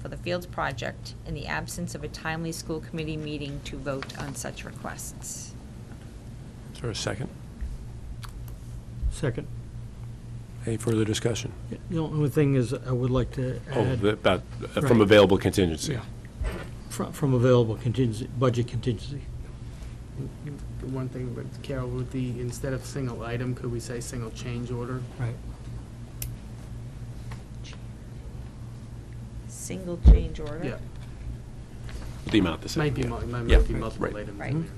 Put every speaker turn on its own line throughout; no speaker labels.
for the Fields project in the absence of a timely school committee meeting to vote on such requests.
Is there a second?
Second.
Any further discussion?
The only thing is, I would like to
Oh,
add,
that, that- from
Uh, Right.
available contingency.
Yeah. fro- from available contingency, budget contingency.
The One thing, but Carol, would the, instead of single item, could we say single change order?
Right.
Single change order?
Yeah,
The amount the
this
same.
might be,
yeah.
mul- might
Yeah.
be multiple
Right.
items.
Right.
in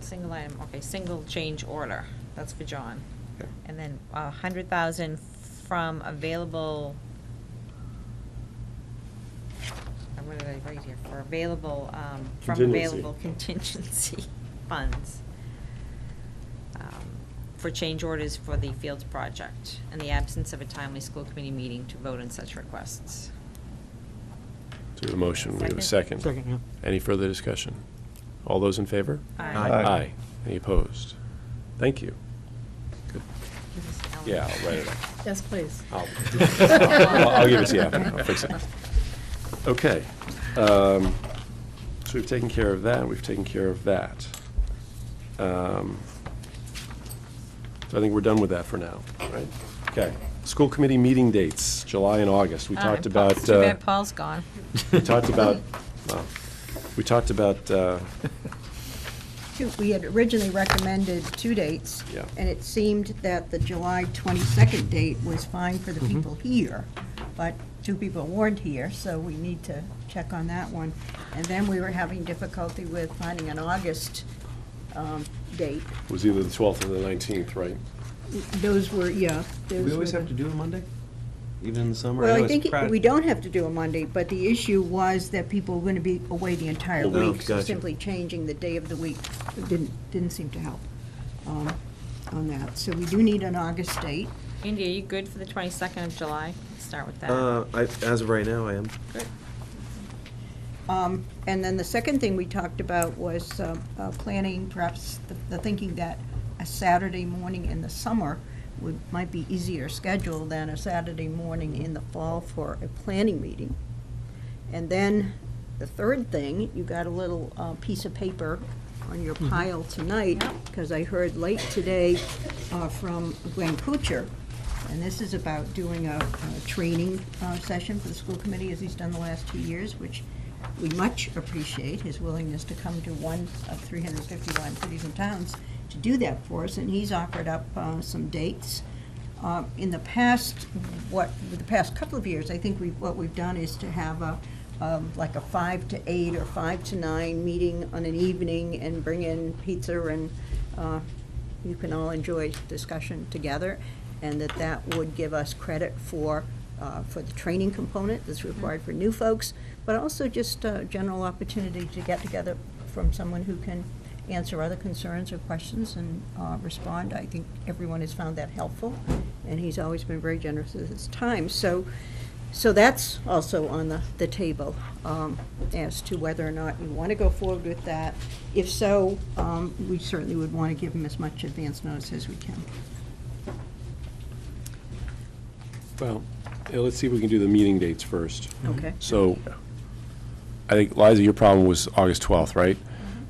Single item, okay, single change order, that's for John.
Yeah.
And then a hundred thousand from available. uh, What did I write here, for available, um, from available contingency funds. um, For change orders for the Fields project, in the absence of a timely school committee meeting to vote on such requests.
So we have a motion, we have a
Second.
second.
Second, yeah.
Any further discussion? All those in favor?
Aye.
Aye. Any opposed? Thank you.
Give us Ellen.
Yeah, I'll write it up.
Yes, please.
I'll, I'll- I'll give it to you after, I'll fix it. Okay. um, So we've taken care of that, we've taken care of that. Um, So I think we're done with that for now, right? Okay. School committee meeting dates, July and August. We
Uh,
talked
and Paul-
about,
too
uh,
bad Paul's gone.
we talked about, well, we talked about, uh,
Two- We had originally recommended two dates.
Yeah.
And it seemed that the July 22nd date was fine for
Mm-hmm.
the people here, but two people weren't here, so we need to check on that one. And then we were having difficulty with finding an August um, date.
it was either the 12th or the 19th, right?
Those were, yeah. those
We always
were
have
the-
to do a Monday, even in the summer.
Well, I
know it's
think it-
crowded.
we don't have to do a Monday, but the issue was that people were going to be away the entire
Oh,
week. So
gotcha.
simply changing the day of the week didn't, didn't seem to help um, on that. So we do need an August date.
Indy, are you good for the 22nd of July? Start with that.
Uh, I, as of right now, I am.
Good.
Um, And then the second thing we talked about was uh, uh, planning, perhaps the- the thinking that a Saturday morning in the summer would, might be easier schedule than a Saturday morning in the fall for a planning meeting. And then the third thing, you got a little uh, piece of paper on your pile tonight, because I heard late today uh, from Gwen Kuchar, and this is about doing a a training uh, session for the school committee, as he's done the last two years, which we much appreciate his willingness to come to one of 351 cities and towns to do that for us, and he's offered up uh, some dates. Uh, In the past, what, with the past couple of years, I think we, what we've done is to have a, um, like a five to eight or five to nine meeting on an evening and bring in pizza and uh, you can all enjoy discussion together, and that that would give us credit for, uh, for the training component that's required for new folks, but also just a general opportunity to get together from someone who can answer other concerns or questions and uh, respond. I think everyone has found that helpful, and he's always been very generous with his time. So, so that's also on the, the table um, as to whether or not you want to go forward with that. If so, um, we certainly would want to give him as much advance notice as we can.
Well, yeah, let's see if we can do the meeting dates first.
Mm-hmm.
Okay.
So, I think, Liza, your problem was August 12th, right?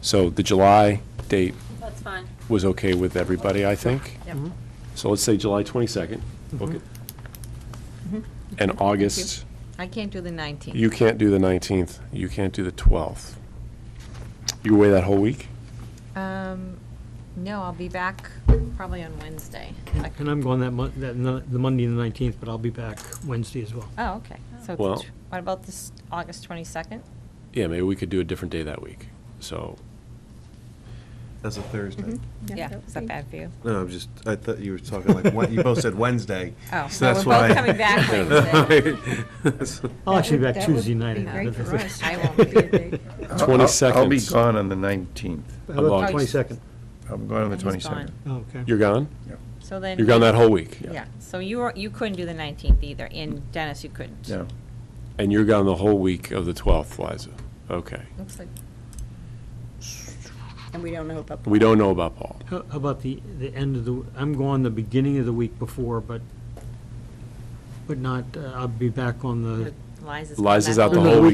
So the July date
Mm-hmm. That's fine.
was okay with everybody, I think?
Yep.
So let's say July 22nd, book it.
Mm-hmm.
And August,
I can't do the 19th.
you can't do the 19th, you can't do the 12th. You away that whole week?
Um, no, I'll be back probably on Wednesday. Like-
And I'm going that Mon, that, no- the Monday, the 19th, but I'll be back Wednesday as well.
Oh, okay. So,
Well-
t- what about this August 22nd?
Yeah, maybe we could do a different day that week. So,
That's a Thursday.
Yeah,
that would
is that
be-
bad for you?
No, I'm just, I thought you were talking like, Wed- you both said Wednesday.
Oh,
so
well, we're
that's
both
why-
coming back Wednesday.
I'll
That
Oh, actually be
would-
back
that would
Tuesday night.
be
I
great
think.
for us.
I won't be there.
I'll- I'll-
22nd.
I'll be gone on the 19th.
How about
August.
the 22nd?
I'm gone on the
He's gone.
22nd.
Oh, okay.
You're gone?
So then.
You're gone that whole week?
Yeah, so you were, you couldn't do the 19th either, and Dennis, you couldn't.
No,
And you're gone the whole week of the 12th, Liza? Okay.
Looks like,
And we don't know about.
We don't know about Paul.
How how about the, the end of the, I'm going the beginning of the week before, but, but not, uh, I'll be back on the
Liza's.
Liza's
back
out the
on
whole week.